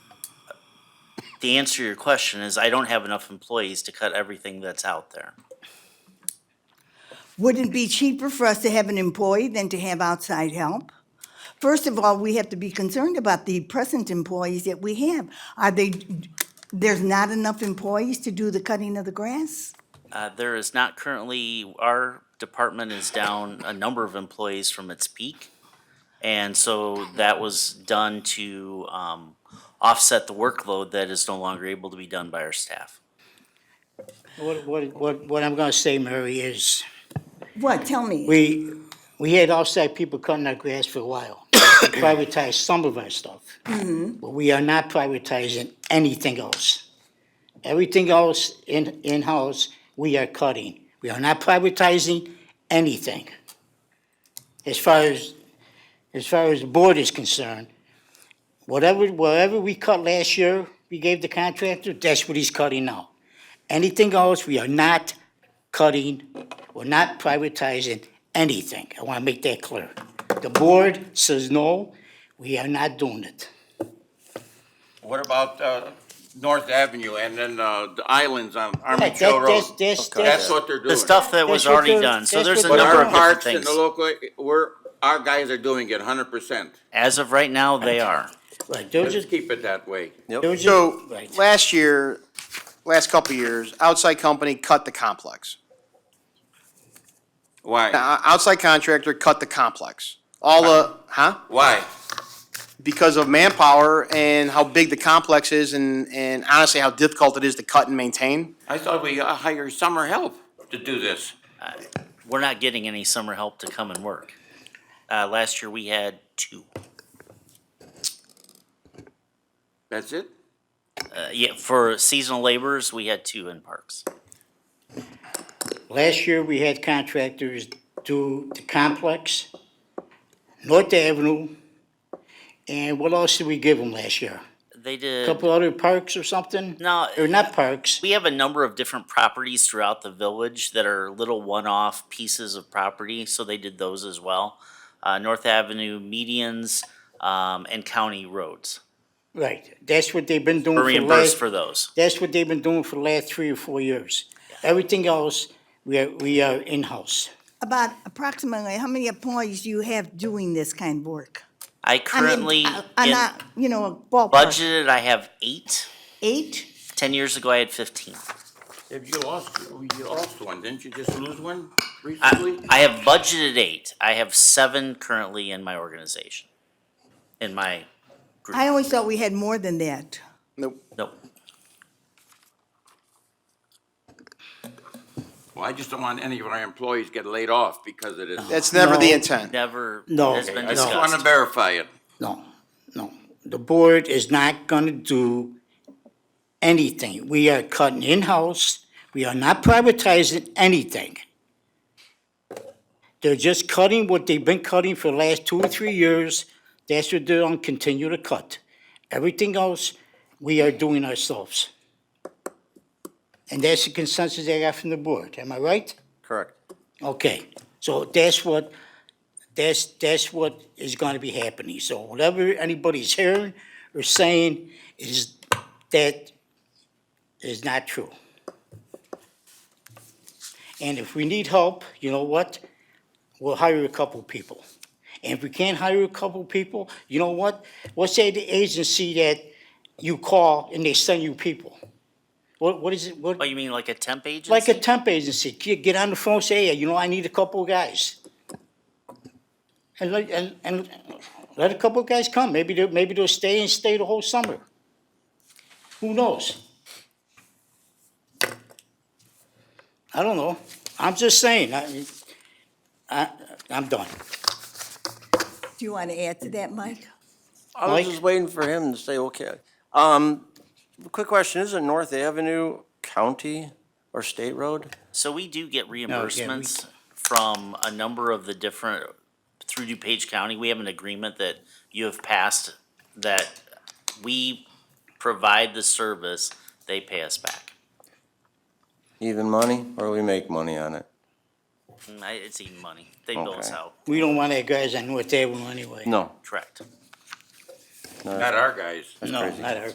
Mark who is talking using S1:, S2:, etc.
S1: the answer to your question is I don't have enough employees to cut everything that's out there.
S2: Wouldn't it be cheaper for us to have an employee than to have outside help? First of all, we have to be concerned about the present employees that we have. Are they, there's not enough employees to do the cutting of the grass?
S1: Uh, there is not currently, our department is down a number of employees from its peak. And so that was done to, um, offset the workload that is no longer able to be done by our staff.
S3: What, what, what, what I'm gonna say, Mary, is
S2: What, tell me?
S3: we, we had outside people cutting our grass for a while. We Privatized some of our stuff. But we are not privatizing anything else. Everything else in, in-house, we are cutting. We are not privatizing anything. As far as, as far as the board is concerned, whatever, whatever we cut last year, we gave the contractor, that's what he's cutting now. Anything else, we are not cutting, we're not privatizing anything. I want to make that clear. The board says no, we are not doing it.
S4: What about uh, North Avenue and then uh, the islands on Army
S3: That-
S4: Trail
S3: that-
S4: Road?
S3: that's- that's-
S4: That's what they're doing.
S1: The stuff that was
S3: That's what
S1: already
S3: they're-
S1: done, so
S3: that's
S1: there's a
S3: what
S4: But
S3: they're
S1: number
S4: our
S1: of different
S3: doing.
S4: parks and
S1: things.
S4: the local, we're, our guys are doing it hundred percent.
S1: As of right now, they are.
S3: Right, they're
S4: Let's
S3: just,
S4: keep it that way.
S3: they're just.
S5: So,
S3: right.
S5: last year, last couple of years, outside company cut the complex.
S4: Why?
S5: Now, outside contractor cut the complex. All the, huh?
S4: Why?
S5: Because of manpower and how big the complex is and, and honestly how difficult it is to cut and maintain.
S4: I thought we uh, hired summer help to do this.
S1: We're not getting any summer help to come and work. Uh, last year, we had two.
S4: That's it?
S1: Uh, yeah, for seasonal laborers, we had two in parks.
S3: Last year, we had contractors do the complex, North Avenue, and what else did we give them last year?
S1: They did.
S3: Couple other parks or something?
S1: No,
S3: Or not parks,
S1: We have a number of different properties throughout the village that are little one-off pieces of property, so they did those as well. Uh, North Avenue medians, um, and county roads.
S3: right. That's what they've been doing
S1: We're
S3: for the last.
S1: reimbursed for those.
S3: That's what they've been doing for the last three or four years. Everything else, we are, we are in-house.
S2: About approximately, how many employees do you have doing this kind of work?
S1: I
S2: I mean,
S1: currently,
S2: I- I'm
S1: in
S2: not, you know, a ballpark.
S1: budgeted, I have eight.
S2: Eight?
S1: Ten years ago, I had fifteen.
S4: If you lost, you lost one, didn't you just lose one
S1: I,
S4: recently?
S1: I have budgeted eight. I have seven currently in my organization. In my,
S2: I always thought we had more than that.
S5: No,
S1: no,
S4: Well, I just don't want any of our employees get laid off because of this.
S5: That's never the
S3: No.
S5: intent.
S1: never
S3: No.
S1: has been
S4: I just
S1: discussed.
S4: want to verify it.
S3: No, no. The board is not gonna do anything. We are cutting in-house. We are not privatizing anything. They're just cutting what they've been cutting for the last two or three years. That's what they're gonna continue to cut. Everything else, we are doing ourselves. And that's the consensus I got from the board. Am I right?
S5: Correct.
S3: Okay, so that's what, that's, that's what is gonna be happening. So whatever anybody's hearing or saying is, that is not true. And if we need help, you know what? We'll hire a couple people. And if we can't hire a couple people, you know what? What's that agency that you call and they send you people? What, what is it, what?
S1: Oh, you mean like a temp agency?
S3: Like a temp agency, get, get on the phone, say, hey, you know, I need a couple of guys. And let, and, and let a couple of guys come, maybe they'll, maybe they'll stay and stay the whole summer. Who knows? I don't know, I'm just saying, I, I, I'm done.
S2: Do you want to add to that, Mike?
S6: I was
S3: Mike?
S6: just waiting for him to say, okay. Um, quick question, isn't North Avenue county or state road?
S1: So we do get
S3: we-
S1: reimbursements from a number of the different, through DuPage County, we have an agreement that you have passed that we provide the service, they pay us back.
S6: Even money, or we make money on it?
S1: Mm, I- It's even money. They bill us
S6: Okay.
S1: out,
S3: We don't want that guys on North Avenue anyway.
S6: No.
S1: correct.
S4: Not our guys.
S3: No,
S6: crazy.
S3: not our